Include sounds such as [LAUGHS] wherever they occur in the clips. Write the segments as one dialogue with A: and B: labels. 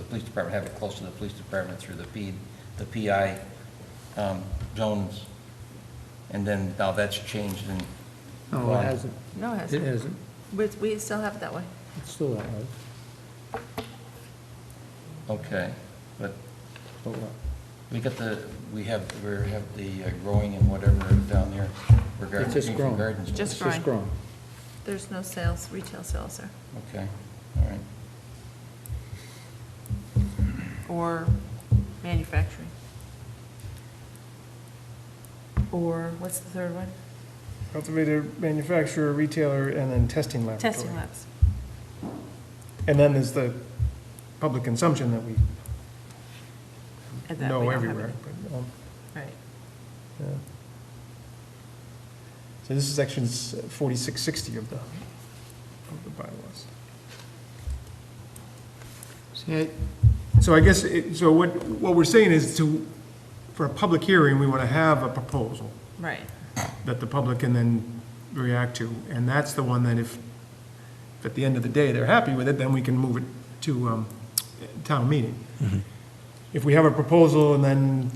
A: police department, have it close to the police department through the P, the PI um, zones. And then now that's changed and.
B: No,
A: gone.
B: it hasn't.
C: No, it
B: It
C: hasn't.
B: hasn't.
C: We, we still have it that way.
B: It's still that way.
A: Okay, but
B: But what?
A: we got the, we have, we have the uh, growing and whatever down there regarding.
B: It's just
A: Greenfield
B: growing.
A: Gardens.
C: Just
B: It's just
C: growing.
B: growing.
C: There's no sales, retail sales there,
A: Okay, all right.
C: or manufacturing. Or, what's the third one?
D: Cultivator, manufacturer, retailer, and then testing laboratory.
C: Testing labs.
D: And then there's the public consumption that we
C: And that we
D: know
C: don't have
D: everywhere.
C: any.
D: but, um,
C: Right.
D: yeah. So this is section forty-six sixty of the, of the bylaws.
B: See, I-
D: So I guess, it- so what, what we're saying is to, for a public hearing, we want to have a proposal
C: Right,
D: that the public can then react to. And that's the one that if, if at the end of the day, they're happy with it, then we can move it to um, town meeting. If we have a proposal and then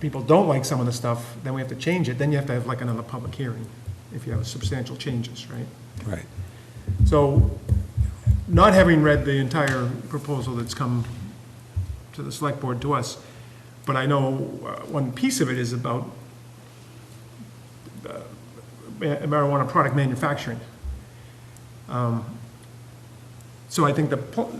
D: people don't like some of the stuff, then we have to change it, then you have to have like another public hearing, if you have substantial changes, right?
E: Right.
D: So, not having read the entire proposal that's come to the select board to us, but I know uh, one piece of it is about uh, marijuana product manufacturing. Um, So I think the, po-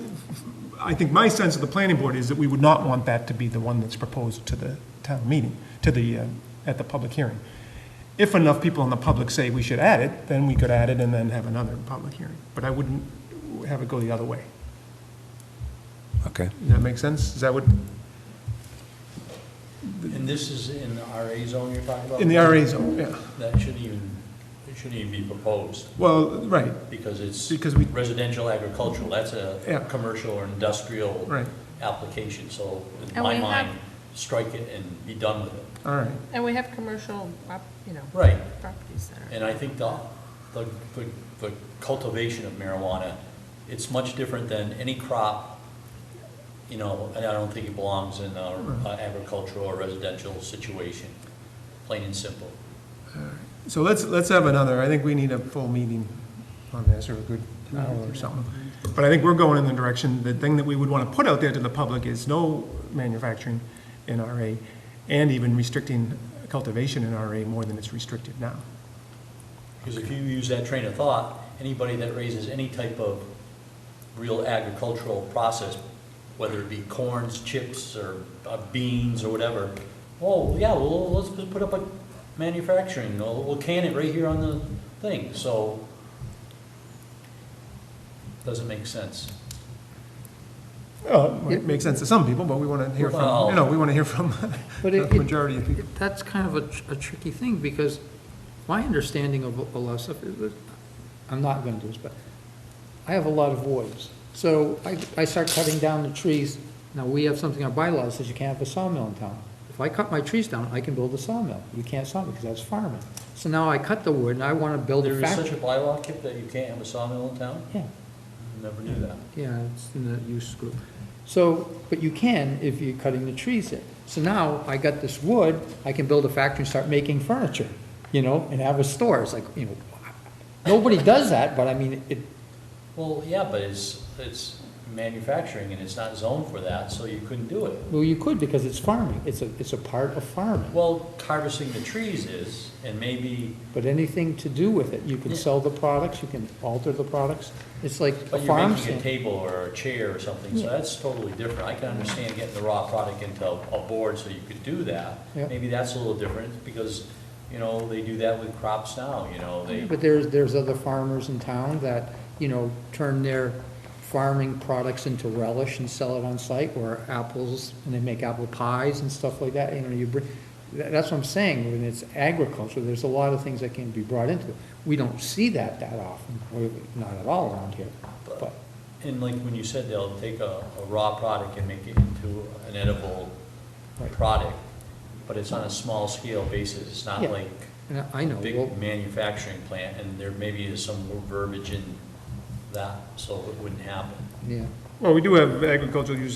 D: I think my sense of the planning board is that we would not want that to be the one that's proposed to the town meeting, to the, uh, at the public hearing. If enough people in the public say we should add it, then we could add it and then have another public hearing. But I wouldn't have it go the other way.
E: Okay.
D: Does that make sense? Is that what,
F: And this is in the RA zone you're talking about?
D: in the RA zone, yeah.
F: That shouldn't even, it shouldn't even be proposed,
D: Well, right,
F: because it's
D: because we,
F: residential agricultural, that's a
D: Yeah.
F: commercial or industrial
D: right,
F: application, so
C: And
F: in
C: we
F: my
C: have-
F: mind, strike it and be done with it.
D: all right.
G: And we have commercial, prop- you know,
F: Right,
G: properties that are.
F: and I think the, the, the- the cultivation of marijuana, it's much different than any crop, you know, and I don't think it belongs in a agricultural or residential situation, plain and simple.
D: So let's, let's have another, I think we need a full meeting on this, or a good hour or something. But I think we're going in the direction, the thing that we would want to put out there to the public is no manufacturing in RA, and even restricting cultivation in RA more than it's restricted now.
F: Because if you use that train of thought, anybody that raises any type of real agricultural process, whether it be corns, chips, or uh, beans, or whatever, oh, yeah, well, let's just put up a manufacturing, we'll we'll can it right here on the thing, so doesn't make sense.
D: Well, it makes sense to some people, but we want to hear from,
F: Well-
D: you know, we want to hear from [LAUGHS]
B: But
D: the
B: it- it-
D: majority of people.
B: it- that's kind of a tr- a tricky thing, because my understanding of a lot of stuff, is that- I'm not going to do this, but I have a lot of voids. So I, I start cutting down the trees. Now, we have something in our bylaws that says you can't have a sawmill in town. If I cut my trees down, I can build a sawmill. You can't sawmill, because that's farming. So now I cut the wood, and I want to build
F: There
B: a
F: is such a
B: factory.
F: bylaw, Kip, that you can't have a sawmill in town?
B: Yeah.
F: Never knew that.
B: Yeah, it's in the use group. So, but you can if you're cutting the trees in. So now I got this wood, I can build a factory and start making furniture, you know, and have a store. It's like, you know, nobody does that, but I mean, it,
F: Well, yeah, but it's, it's manufacturing, and it's not zoned for that, so you couldn't do it.
B: well, you could because it's farming. It's a, it's a part of farming.
F: Well, harvesting the trees is, and maybe,
B: But anything to do with it, you can sell the products, you can alter the products. It's like a
F: but you're
B: farm
F: making a
B: stand.
F: table or a chair or something, so
B: Yeah.
F: that's totally different. I can understand getting the raw product into a board so you could do that.
B: Yeah.
F: Maybe that's a little different, because, you know, they do that with crops now, you know, they,
B: But there's, there's other farmers in town that, you know, turn their farming products into relish and sell it on site, or apples, and they make apple pies and stuff like that, you know, you bring, tha- that's what I'm saying, when it's agriculture, there's a lot of things that can be brought into it. We don't see that that often, or not at all around here, but,
F: and like when you said, they'll take a, a raw product and make it into an edible
B: Right.
F: product, but it's on a small scale basis, it's not
B: Yeah.
F: like
B: and I know, well,
F: big manufacturing plant, and there maybe is some verbiage in that, so it wouldn't happen.
B: yeah.
D: Well, we do have agricultural use